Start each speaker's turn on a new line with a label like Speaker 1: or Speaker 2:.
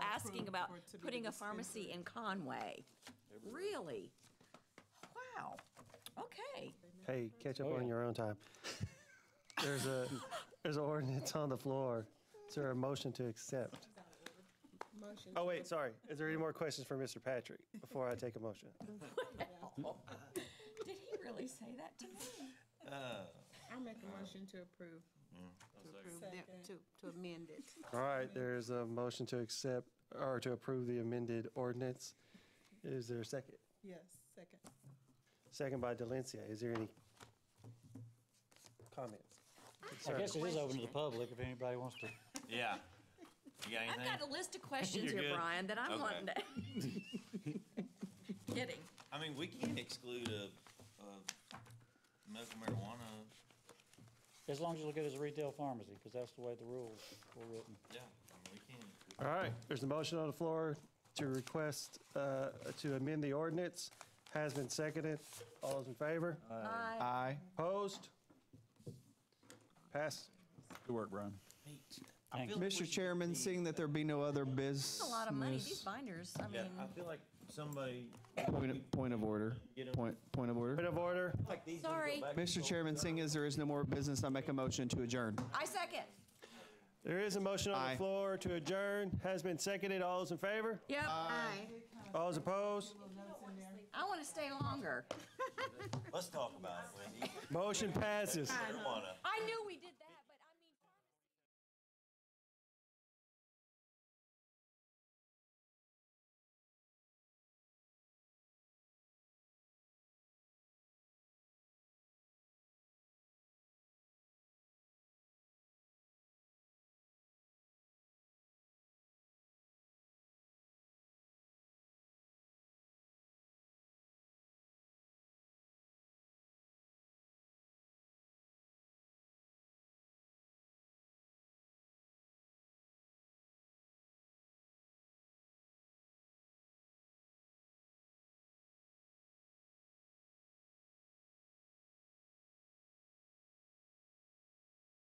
Speaker 1: about
Speaker 2: for it to be
Speaker 1: putting a
Speaker 2: dispensary.
Speaker 1: pharmacy in Conway. Really? Wow, okay.
Speaker 3: Hey, catch
Speaker 4: Oh,
Speaker 3: up on your own time. There's a, there's an ordinance on the floor. Is there a motion to accept?
Speaker 2: Motion.
Speaker 3: Oh, wait, sorry. Is there any more questions for Mr. Patrick before I take a motion?
Speaker 1: Did he really say that to me?
Speaker 2: I make a motion to approve.
Speaker 5: To, to amend it.
Speaker 3: All right, there's a motion to accept, or to approve the amended ordinance. Is there a second?
Speaker 2: Yes, second.
Speaker 3: Second by Delencia. Is there any comments?
Speaker 4: I guess it is open to the
Speaker 1: Question.
Speaker 4: public if anybody wants to.
Speaker 6: Yeah. You got
Speaker 1: I've
Speaker 6: anything?
Speaker 1: got a list of questions
Speaker 6: You're
Speaker 1: here,
Speaker 6: good?
Speaker 1: Brian, that I'm
Speaker 6: Okay.
Speaker 1: wanting to. Kidding.
Speaker 6: I mean, we can't exclude a, a medical marijuana.
Speaker 4: As long as you look at it as a retail pharmacy, because that's the way the rules were written.
Speaker 6: Yeah, I mean, we can't.
Speaker 3: All right, there's a motion on the floor to request, uh, to amend the ordinance. Has been seconded. All those in favor?
Speaker 1: Aye.
Speaker 7: Aye.
Speaker 3: Opposed? Pass.
Speaker 7: Good work, Brian.
Speaker 4: Thank you.
Speaker 7: Mr. Chairman, seeing that there be no other business.
Speaker 1: That's a lot of money, these binders, I
Speaker 6: Yeah,
Speaker 1: mean,
Speaker 6: I feel like somebody.
Speaker 7: Point of- Point of order. Point, point of
Speaker 3: Point
Speaker 7: order.
Speaker 3: of order.
Speaker 6: Like these.
Speaker 1: sorry,
Speaker 7: Mr. Chairman, seeing as there is no more business, I make a motion to adjourn.
Speaker 1: I second.
Speaker 3: There is a motion on
Speaker 7: Aye.
Speaker 3: the floor to adjourn. Has been seconded. All those in favor?
Speaker 1: Yep,
Speaker 5: Aye.
Speaker 3: All those opposed?
Speaker 1: I want to stay longer.
Speaker 6: Let's talk about it, Wendy.
Speaker 3: Motion passes.
Speaker 6: Marijuana.
Speaker 1: I knew we did that.